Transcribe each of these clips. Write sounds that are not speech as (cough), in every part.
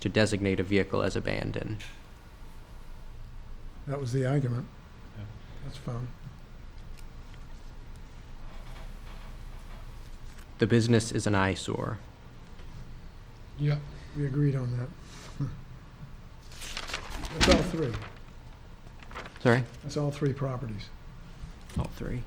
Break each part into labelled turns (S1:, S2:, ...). S1: to designate a vehicle as abandoned.
S2: That was the argument.
S3: Yeah.
S2: That's fine.
S1: The business is an eyesore.
S2: Yep. We agreed on that. (laughs) That's all three.
S1: Sorry?
S2: That's all three properties.
S1: All three.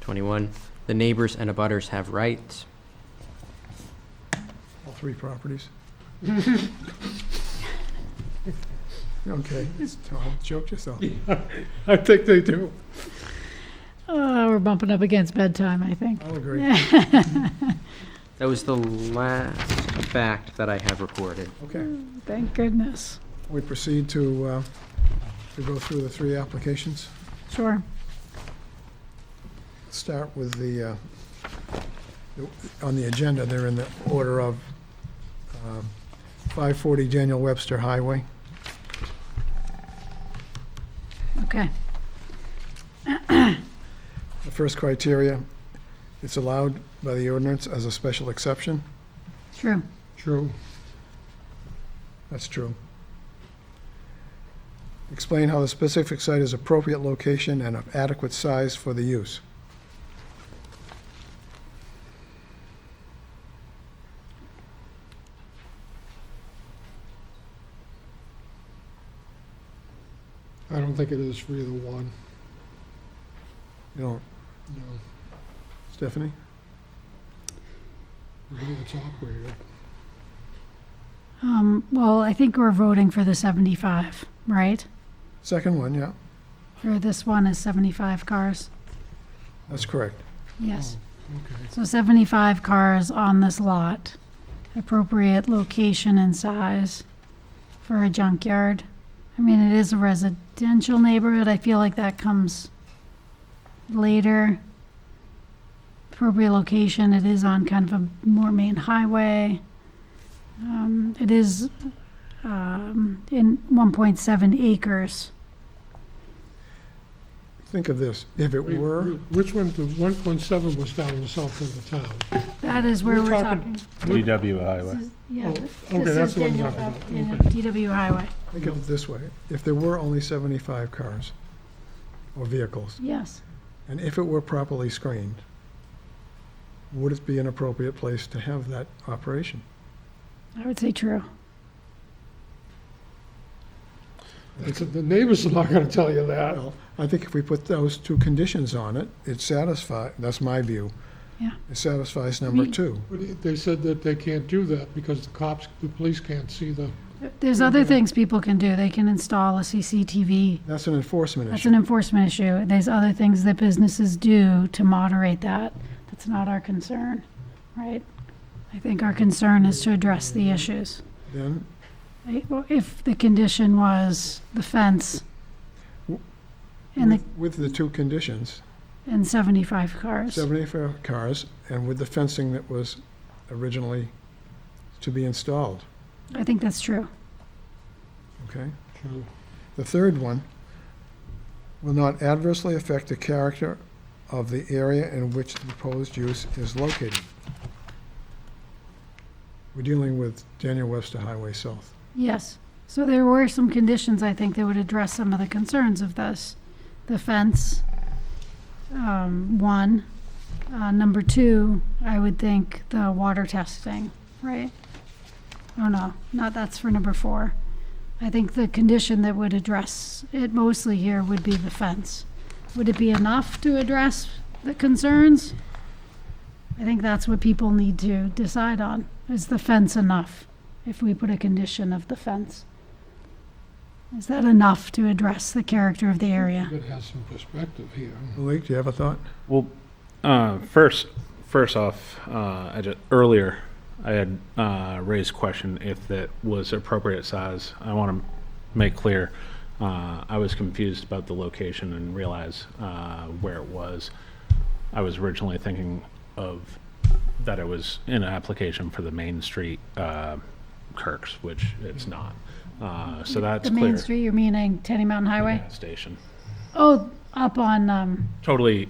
S1: Twenty-one, the neighbors and abutters have rights.
S2: All three properties. Okay, Tom, choke yourself.
S3: I think they do.
S4: Oh, we're bumping up against bedtime, I think.
S2: I'll agree.
S1: That was the last fact that I have recorded.
S2: Okay,
S4: Thank goodness.
S2: we proceed to, uh, to go through the three applications.
S4: Sure.
S2: Start with the, uh, on the agenda, they're in the order of um, 540 Daniel Webster Highway.
S4: Okay.
S2: The first criteria, it's allowed by the ordinance as a special exception.
S4: True.
S2: True. That's true. Explain how the specific site is appropriate location and of adequate size for the use.
S5: I don't think it is for either one,
S2: You know,
S5: no.
S2: Stephanie?
S5: I think it's operated.
S4: Um, well, I think we're voting for the 75, right?
S2: Second one, yeah,
S4: For this one is 75 cars.
S2: that's correct.
S4: Yes.
S5: Oh, Okay,
S4: So 75 cars on this lot. Appropriate location and size for a junkyard. I mean, it is a residential neighborhood. I feel like that comes later. Appropriate location, it is on kind of a more main highway. Um, it is um, in 1.7 acres.
S2: Think of this, if it
S5: Wait,
S2: were,
S5: Which one, the one point seven was down in the south end of town.
S4: That is where
S5: We're
S4: we're
S5: talking-
S4: talking.
S3: DW
S4: This
S3: Highway.
S4: is- Yeah,
S5: Oh,
S4: this
S5: okay, that's
S4: is
S5: the one I'm
S4: Daniel,
S5: talking about.
S4: Daniel- DW Highway.
S2: think of it this way, if there were only 75 cars or vehicles,
S4: Yes,
S2: and if it were properly screened, would it be an appropriate place to have that operation?
S4: I would say true.
S5: It's- The neighbors are not gonna tell you that.
S2: Well, I think if we put those two conditions on it, it satisfies, that's my view.
S4: Yeah.
S2: It satisfies number
S4: Me-
S2: two.
S5: But They said that they can't do that because the cops, the police can't see the,
S4: There's other things people can do. They can install a CCTV.
S2: That's an enforcement
S4: That's
S2: issue.
S4: an enforcement issue. There's other things that businesses do to moderate that. That's not our concern, right? I think our concern is to address the issues.
S2: Then,
S4: Right? Well, If the condition was the fence and the,
S2: with- with the two conditions,
S4: and 75 cars.
S2: 74 cars, and with the fencing that was originally to be installed,
S4: I think that's true.
S2: okay?
S5: True.
S2: The third one will not adversely affect the character of the area in which the proposed use is located. We're dealing with Daniel Webster Highway South.
S4: Yes, so there were some conditions, I think, that would address some of the concerns of this. The fence, um, one. Uh, number two, I would think the water testing, right? Oh, no, not, that's for number four. I think the condition that would address it mostly here would be the fence. Would it be enough to address the concerns? I think that's what people need to decide on. Is the fence enough? if we put a condition of the fence. Is that enough to address the character of the area?
S5: that has some perspective here.
S2: Malik, do you have a thought?
S3: Well, uh, first, first off, uh, I just, earlier, I had, uh, raised question if that was appropriate size. I want to make clear, uh, I was confused about the location and realized, uh, where it was. I was originally thinking of, that it was in an application for the Main Street, uh, Kirks, which it's not. Uh, so that's
S4: The
S3: clear.
S4: main street, you're meaning Tenny Mountain Highway?
S3: Gas Station.
S4: Oh, up on, um,
S3: Totally